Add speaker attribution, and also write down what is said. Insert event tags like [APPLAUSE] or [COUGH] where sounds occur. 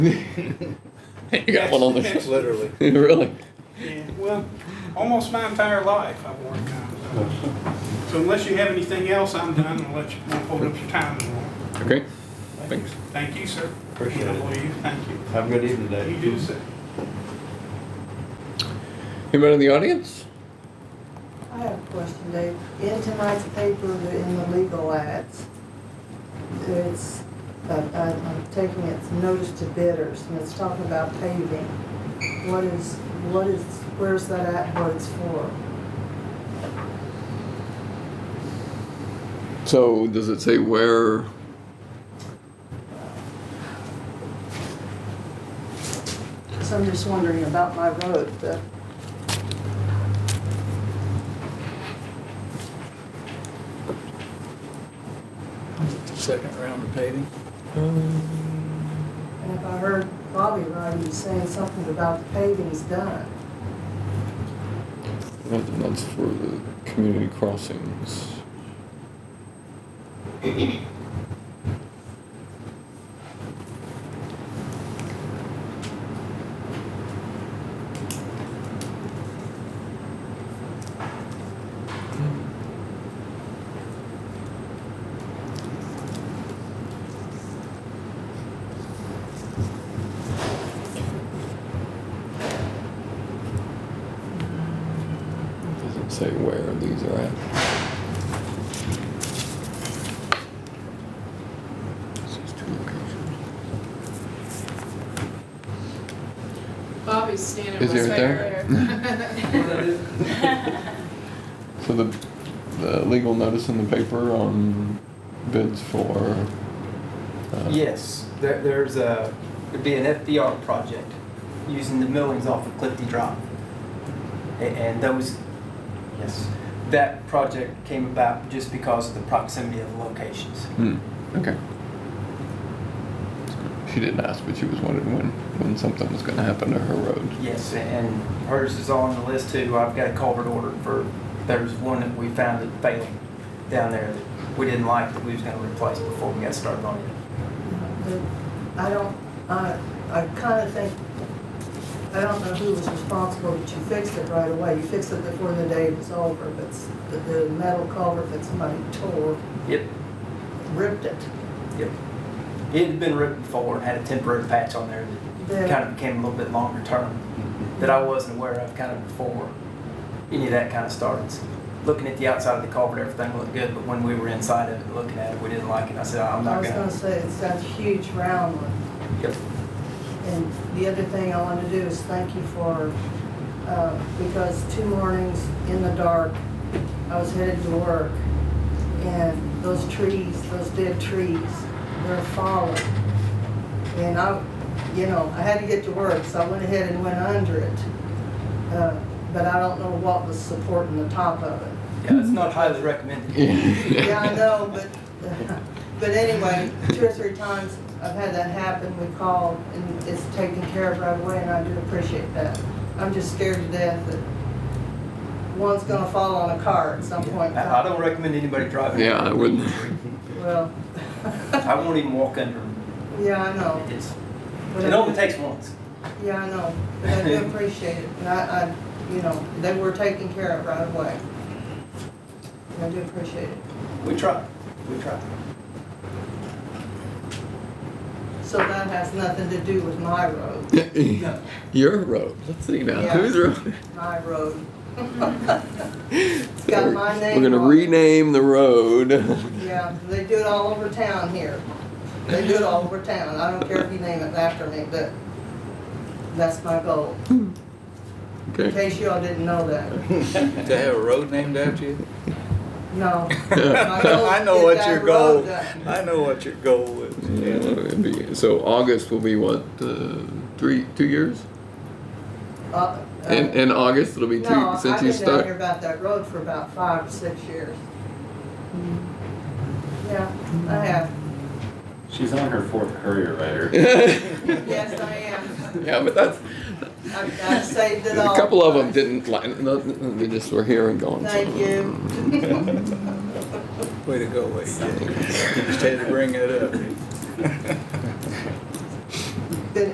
Speaker 1: [LAUGHS] You got one on
Speaker 2: That's
Speaker 1: the,
Speaker 2: literally.
Speaker 1: [LAUGHS] really?
Speaker 3: Yeah, well, almost my entire life I've worn condoms. So unless you have anything else, I'm done. I'll let you, I'll hold up your time anymore.
Speaker 1: Okay, thanks.
Speaker 3: Thank you, sir.
Speaker 2: Appreciate it.
Speaker 3: Well, you- Thank you.
Speaker 2: Have a good evening,
Speaker 3: You
Speaker 2: Dave.
Speaker 3: do, sir.
Speaker 1: Anybody in the audience?
Speaker 4: I have a question, Dave. In tonight's paper, the- in the legal ads, it's, uh, I- I'm taking it's notice to bidders, and it's talking about paving. What is, what is, where's that at, what it's for?
Speaker 1: So does it say where?
Speaker 4: So I'm just wondering about my road, the,
Speaker 5: Second round of [LAUGHS] paving?
Speaker 1: uh,
Speaker 4: and if I heard Bobby right, he was saying something about the paving's done.
Speaker 1: That's for the community crossings. Doesn't say where these are at. Says two locations.
Speaker 6: Bobby's standing
Speaker 1: Is he
Speaker 6: right
Speaker 1: right there?
Speaker 6: there.
Speaker 1: [LAUGHS] So the, the legal notice in the paper on bids for. uh,
Speaker 7: Yes, there, there's a, it'd be an FBR project using the millings off of Clifty Drive. A- And those, yes, that project came about just because of the proximity of locations.
Speaker 1: Hmm, okay. She didn't ask, but she was wondering when, when something was gonna happen to her road.
Speaker 7: Yes, and hers is on the list too. I've got a culvert ordered for, there's one that we found that failed down there that we didn't like that we was gonna replace before we got started on it.
Speaker 4: I don't, I, I kind of think, I don't know who was responsible, but you fixed it right away. You fixed it before the day was over, but s- the, the metal culvert that somebody tore,
Speaker 7: Yep,
Speaker 4: ripped it.
Speaker 7: yep. It had been ripped before and had a temporary patch on there that kind
Speaker 4: Then,
Speaker 7: of became a little bit longer term that I wasn't aware of kind of before any of that kind of started. Looking at the outside of the culvert, everything looked good, but when we were inside of it looking at it, we didn't like it. I said, I'm
Speaker 4: I
Speaker 7: not
Speaker 4: was gonna
Speaker 7: gonna.
Speaker 4: say, it's that huge round one.
Speaker 7: Yep.
Speaker 4: And the other thing I want to do is thank you for, uh, because two mornings in the dark, I was headed to work, and those trees, those dead trees, they're falling. And I, you know, I had to get to work, so I went ahead and went under it. Uh, But I don't know what was supporting the top of it.
Speaker 7: Yeah, it's not highly recommended.
Speaker 4: Yeah, I know, but, [LAUGHS] but anyway, two or three times I've had that happen, we call and it's taken care of right away, and I do appreciate that. I'm just scared to death that one's gonna fall on a car at some point in
Speaker 7: I I
Speaker 4: time.
Speaker 7: don't recommend anybody driving.
Speaker 1: Yeah, I wouldn't. [LAUGHS]
Speaker 4: Well, [LAUGHS]
Speaker 7: I won't even walk under them.
Speaker 4: yeah, I know.
Speaker 7: It's,
Speaker 4: but
Speaker 7: it
Speaker 4: I
Speaker 7: only
Speaker 4: do-
Speaker 7: takes once.
Speaker 4: Yeah, I know, but I do appreciate it, and I, I, you know, they were taken care of right away. And I do appreciate it.
Speaker 7: We try, we try.
Speaker 4: So that has nothing to do with my road.
Speaker 1: Your road, let's see now,
Speaker 4: Yeah.
Speaker 1: whose road?
Speaker 4: my road. [LAUGHS] got my name
Speaker 1: We're gonna
Speaker 4: on it.
Speaker 1: rename the
Speaker 4: [LAUGHS]
Speaker 1: road.
Speaker 4: Yeah, they do it all over town here. They do it all over town. I don't care if you name it after me, but that's my goal. In
Speaker 1: Okay,
Speaker 4: case you all didn't know that.
Speaker 5: To have a road named after you?
Speaker 1: [LAUGHS]
Speaker 4: No.
Speaker 5: [LAUGHS] I know what your goal, I know what your goal is.
Speaker 1: Uh, it'd be- so August will be what, uh, three, two years? In,
Speaker 4: And,
Speaker 1: in August, it'll be two,
Speaker 4: uh, No, I've
Speaker 1: since you
Speaker 4: been down
Speaker 1: start.
Speaker 4: here about that road for about five or six years. Yeah, I have.
Speaker 8: She's on her fourth
Speaker 1: [LAUGHS]
Speaker 8: courier rider.
Speaker 4: Yes, I am.
Speaker 1: [LAUGHS] Yeah, but that's,
Speaker 4: I've, I've saved it all.
Speaker 1: a couple of them didn't, like- they just were here and gone. so-
Speaker 4: Thank you.
Speaker 1: [LAUGHS]
Speaker 5: Way to go, Wade. Just had to bring it up.